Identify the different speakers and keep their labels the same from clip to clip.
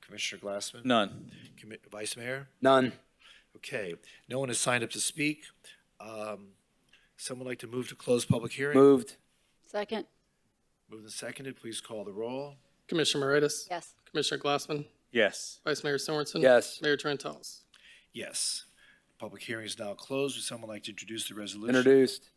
Speaker 1: Commissioner Glassman?
Speaker 2: None.
Speaker 1: Commi- Vice Mayor?
Speaker 3: None.
Speaker 1: Okay, no one has signed up to speak. Um, Someone like to move to close public hearing?
Speaker 3: Moved.
Speaker 4: Second,
Speaker 1: Moved and seconded, please call the roll.
Speaker 5: Commissioner Moritas?
Speaker 4: yes.
Speaker 5: Commissioner Glassman?
Speaker 2: Yes.
Speaker 5: Vice Mayor Sorensen?
Speaker 3: Yes.
Speaker 5: Mayor Trentalles?
Speaker 1: Yes. Public hearing is now closed. Would someone like to introduce the resolution?
Speaker 3: Introduced.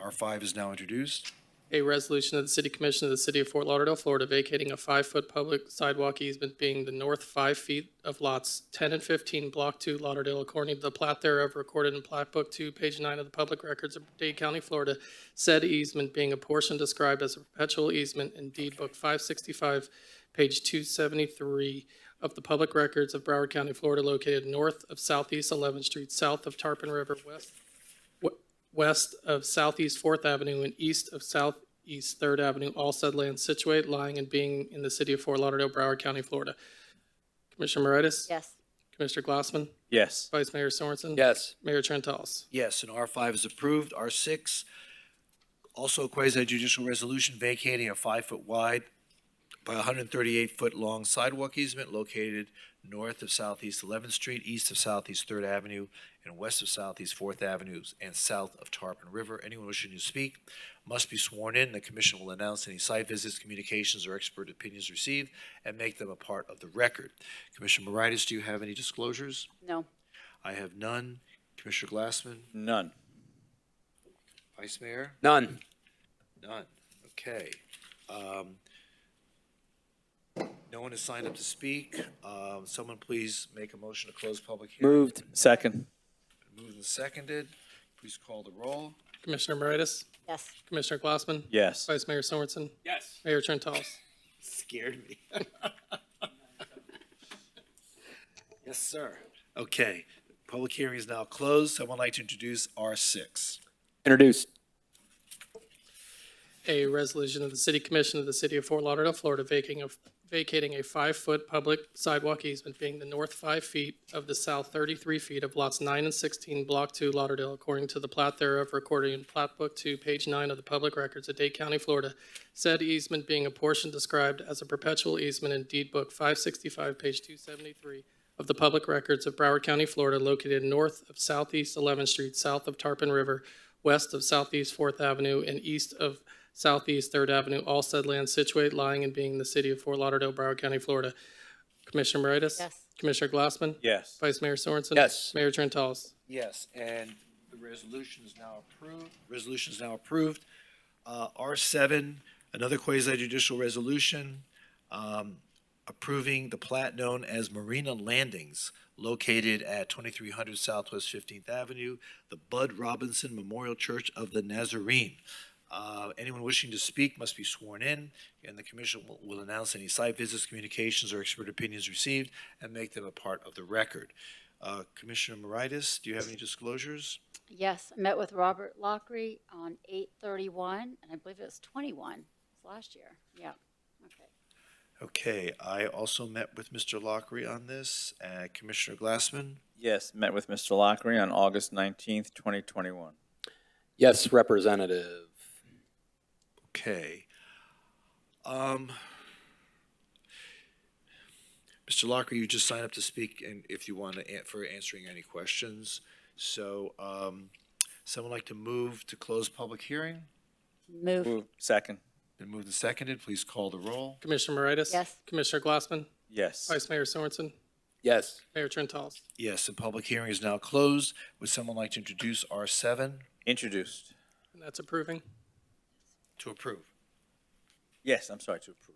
Speaker 1: R5 is now introduced.
Speaker 5: A resolution of the City Commission of the City of Fort Lauderdale, Florida, vacating a five-foot public sidewalk easement being the north five feet of lots ten and fifteen, block two, Lauderdale, according to the plat thereof recorded in plat book two, page nine of the public records of Dade County, Florida. Said easement being a portion described as a perpetual easement in deed book five sixty-five, page two seventy-three of the public records of Broward County, Florida, located north of Southeast Eleventh Street, south of Tarpon River, west west of Southeast Fourth Avenue and east of Southeast Third Avenue, all said land situate, lying and being in the city of Fort Lauderdale, Broward County, Florida. Commissioner Moritas?
Speaker 4: Yes.
Speaker 5: Commissioner Glassman?
Speaker 2: Yes.
Speaker 5: Vice Mayor Sorensen?
Speaker 3: Yes.
Speaker 5: Mayor Trentalles?
Speaker 1: Yes, and R5 is approved. R6, also a quasi judicial resolution vacating a five-foot wide by 138-foot-long sidewalk easement located north of Southeast 11th Street, east of Southeast 3rd Avenue, and west of Southeast 4th Avenue, and south of Tarpon River. Anyone wishing to speak must be sworn in. The commission will announce any site visits, communications, or expert opinions received and make them a part of the record. Commissioner Moritas, do you have any disclosures?
Speaker 4: No.
Speaker 1: I have none. Commissioner Glassman?
Speaker 2: None.
Speaker 1: Vice Mayor?
Speaker 3: None.
Speaker 1: None. Okay. Um, No one has signed up to speak. Um, Someone please make a motion to close public hearing.
Speaker 3: Moved.
Speaker 2: Second.
Speaker 1: Moved and seconded. Please call the roll.
Speaker 5: Commissioner Moritas?
Speaker 4: Yes.
Speaker 5: Commissioner Glassman?
Speaker 2: Yes.
Speaker 5: Vice Mayor Sorensen? Yes. Mayor Trentalles?
Speaker 1: Scared me. Yes, sir. Okay, public hearing is now closed. Someone like to introduce R6.
Speaker 3: Introduced.
Speaker 5: A resolution of the City Commission of the City of Fort Lauderdale, Florida, vacating a, vacating a five-foot public sidewalk easement being the north five feet of the south thirty-three feet of lots nine and sixteen, block two, Lauderdale, according to the plat thereof recorded in plat book two, page nine of the public records of Dade County, Florida. Said easement being a portion described as a perpetual easement in deed book five sixty-five, page two seventy-three of the public records of Broward County, Florida, located north of Southeast Eleventh Street, south of Tarpon River, west of Southeast Fourth Avenue, and east of Southeast Third Avenue, all said land situate, lying and being in the city of Fort Lauderdale, Broward County, Florida. Commissioner Moritas?
Speaker 4: Yes.
Speaker 5: Commissioner Glassman?
Speaker 2: Yes.
Speaker 5: Vice Mayor Sorensen?
Speaker 3: Yes.
Speaker 5: Mayor Trentalles?
Speaker 1: Yes, and the resolution is now approved. Resolution is now approved. Uh, R7, another quasi judicial resolution um, approving the plat known as Marina Landings located at 2300 Southwest 15th Avenue, the Bud Robinson Memorial Church of the Nazarene. Uh, Anyone wishing to speak must be sworn in, and the commission will- will announce any site visits, communications, or expert opinions received and make them a part of the record. Uh, Commissioner Moritas, do you have any disclosures?
Speaker 4: Yes. I met with Robert Lockery on eight thirty-one, and I believe it was twenty-one, It's last year. Yeah. Okay.
Speaker 1: Okay, I also met with Mr. Lockery on this. Uh, Commissioner Glassman?
Speaker 2: Yes. Met with Mr. Lockery on August 19th, 2021.
Speaker 3: Yes, Representative.
Speaker 1: Okay. Um, Mr. Lockery, you just signed up to speak and if you want to, an- for answering any questions. So, um, someone like to move to close public hearing?
Speaker 4: Move.
Speaker 2: Moved. Second.
Speaker 1: Then moved and seconded, please call the roll.
Speaker 5: Commissioner Moritas?
Speaker 4: Yes.
Speaker 5: Commissioner Glassman?
Speaker 2: Yes.
Speaker 5: Vice Mayor Sorensen?
Speaker 3: Yes.
Speaker 5: Mayor Trentalles?
Speaker 1: Yes, the public hearing is now closed. Would someone like to introduce R seven
Speaker 2: Introduced.
Speaker 5: And that's approving.
Speaker 1: to approve?
Speaker 2: Yes. I'm sorry to approve.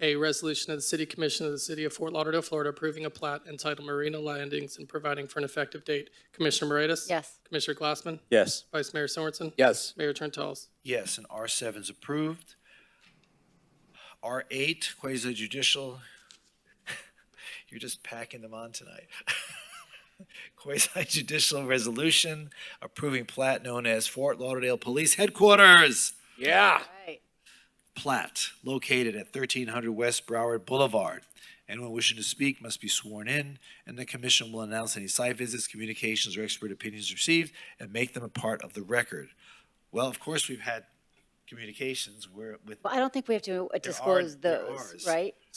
Speaker 5: A resolution of the City Commission of the City of Fort Lauderdale, Florida, approving a plat entitled Marina Landings and providing for an effective date. Commissioner Moritas?
Speaker 4: Yes.
Speaker 5: Commissioner Glassman?
Speaker 2: Yes.
Speaker 5: Vice Mayor Sorensen?
Speaker 3: Yes.
Speaker 5: Mayor Trentalles?
Speaker 1: Yes, and R seven's approved. R eight, quasi judicial. You're just packing them on tonight. Quasi judicial resolution approving plat known as Fort Lauderdale Police Headquarters. Ah.
Speaker 3: Yeah.
Speaker 4: Right.
Speaker 1: Plat located at thirteen hundred West Broward Boulevard. Anyone wishing to speak must be sworn in, and the commission will announce any site visits, communications, or expert opinions received and make them a part of the record. Well, of course, we've had communications where with
Speaker 4: Well, I don't think we have to uh,
Speaker 1: There are-
Speaker 4: disclose
Speaker 1: there
Speaker 4: those,
Speaker 1: are.
Speaker 4: right?